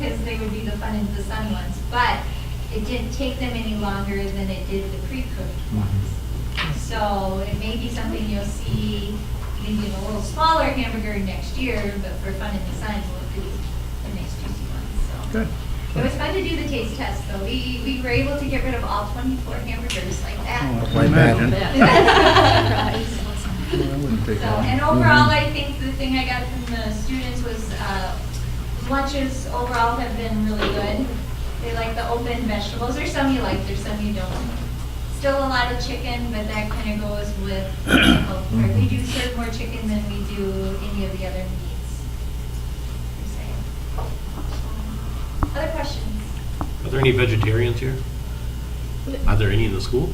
they would be the fun and the sun ones, but it didn't take them any longer than it did the pre-cooked Mm-hmm. ones. So it may be something you'll see, maybe in a little smaller hamburger next year, but for fun and the sun, we'll do the nice juicy ones, so. Good. It was fun to do the taste test, though. We, we were able to get rid of all twenty-four hamburgers like Oh, that. I imagine. So, Well, that wouldn't take long. and overall, I think the thing I got from the students was, uh, lunches overall have been really good. They like the open vegetables. There's some you like, there's some you don't. Still a lot of chicken, but that kind of goes with, or we do serve more chicken than we do any of the other meats. per se. So, Other questions? Are there any vegetarians here? Are there any in the school?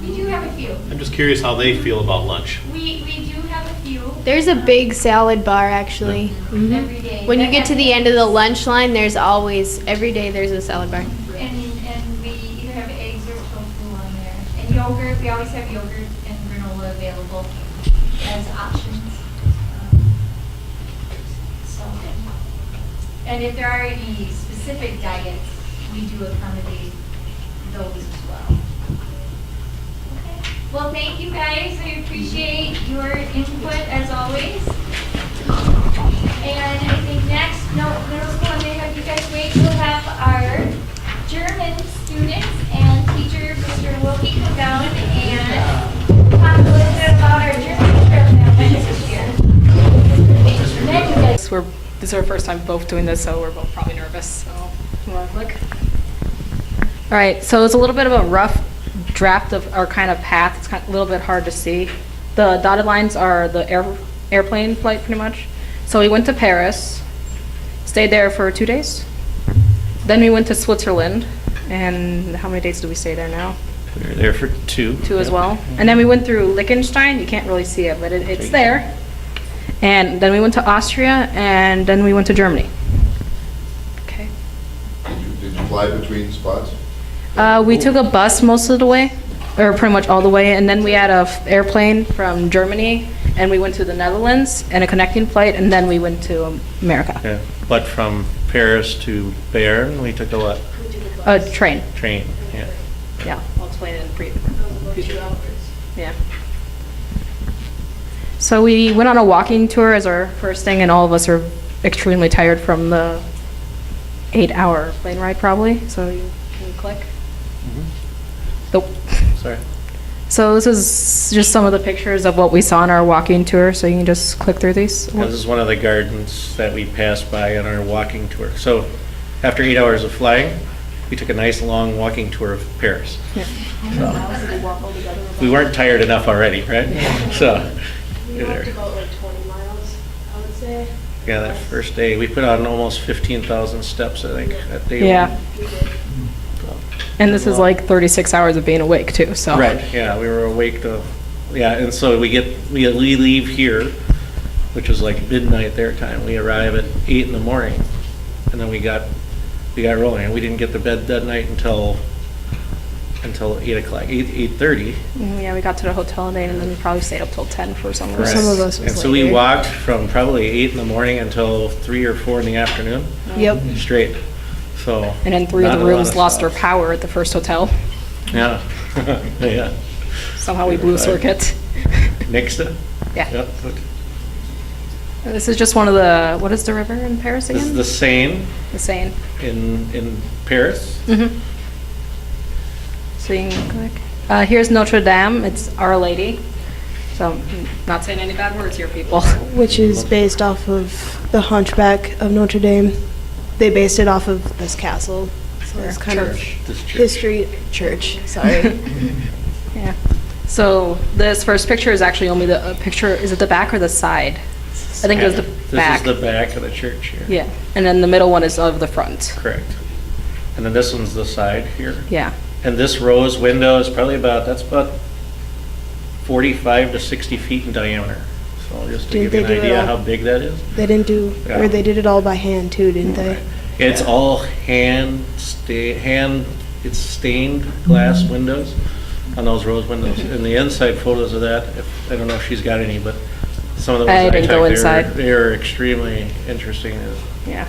We do have a few. I'm just curious how they feel about lunch. We, we do have a few There's a big salad bar actually. every day. When you get to the end of the lunch line, there's always every day there's a salad bar. And, and we either have eggs or tofu on there. And yogurt, we always have yogurt and granola available as options. Um, So, and if there are any specific diets, we do accommodate those as well. Okay. Well, thank you guys. I appreciate your input as always. And I think next, no, middle school, they have you guys wait, we'll have our German students and teacher, Mr. Wilkie, come down and talk a little bit about our German trip that went this year. And Then you guys Yes, We're, this is our first time both doing this, so we're both probably nervous, so you want to look? All right, so it's a little bit of a rough draft of our kind of path. It's kind of a little bit hard to see. The dotted lines are the air, airplane flight, pretty much. So we went to Paris, stayed there for two days. Then we went to Switzerland, and how many days do we stay there now? We were there for two. Two as well. And then we went through Liechtenstein. You can't really see it, but it, it's there. And then we went to Austria, and then we went to Germany. Okay. Did you- Did you fly between spots? Uh, we took a bus most of the way, or pretty much all the way, and then we had a f- airplane from Germany, and we went to the Netherlands and a connecting flight, and then we went to America. Yeah, But from Paris to Bayonne, we took a what? A train. Train, yeah. Yeah, I'll explain it in brief. Yeah. So we went on a walking tour as our first thing, and all of us are extremely tired from the eight-hour plane ride, probably, so you can click. Mm-hmm. The- Sorry. So this is just some of the pictures of what we saw on our walking tour, so you can just click through these. This is one of the gardens that we passed by on our walking tour. So after eight hours of flying, we took a nice, long walking tour of Paris. Yeah. We weren't tired enough already, right? So, You walked about like 20 miles, I would say. yeah, that first day, we put on almost 15,000 steps, I think, that day. Yeah. We did. And this is like 36 hours of being awake, too, so. Right, yeah, we were awake to, yeah, and so we get, we we leave here, which was like midnight their time. We arrive at eight in the morning, and then we got, we got rolling. And we didn't get to bed that night until, until eight o'clock, eight, eight-thirty. Mm, Yeah, we got to the hotel and then, and then we probably stayed up till 10 for some of us. And so we walked from probably eight in the morning until three or four in the afternoon, Oh. Yep. straight, so. And then three of not the a lot rooms lost their stops. power at the first hotel. Yeah, yeah. Somehow we blew a circuit. Next up? Yeah. Yep. This is just one of the, what is the river in Paris This is again? the Seine. The Seine. in in Paris. Mhm. So you can click. Uh, here's Notre Dame. It's Our Lady. So I'm not saying any bad words here, people. Which is based off of The Hunchback of Notre Dame. They based it off of this castle. So it's kind of This church. history, church, sorry. Yeah. So this first picture is actually only the uh, picture, is it the back or the side? I think it was the back. This is the back of the church here. Yeah. And then the middle one is of the front. Correct. And then this one's the side here. Yeah. And this rose window is probably about that's about forty-five to sixty feet in diameter. So just to Did give you an they do it idea all- how big that is. They didn't do, Yeah. or they did it all by hand too, didn't they? It's all hand sta- hand it's stained glass windows on those rose windows. And the inside photos of that, if, I don't know if she's got any, but some of the ones I that I didn't go took, they were- inside. They are extremely interesting. Yeah.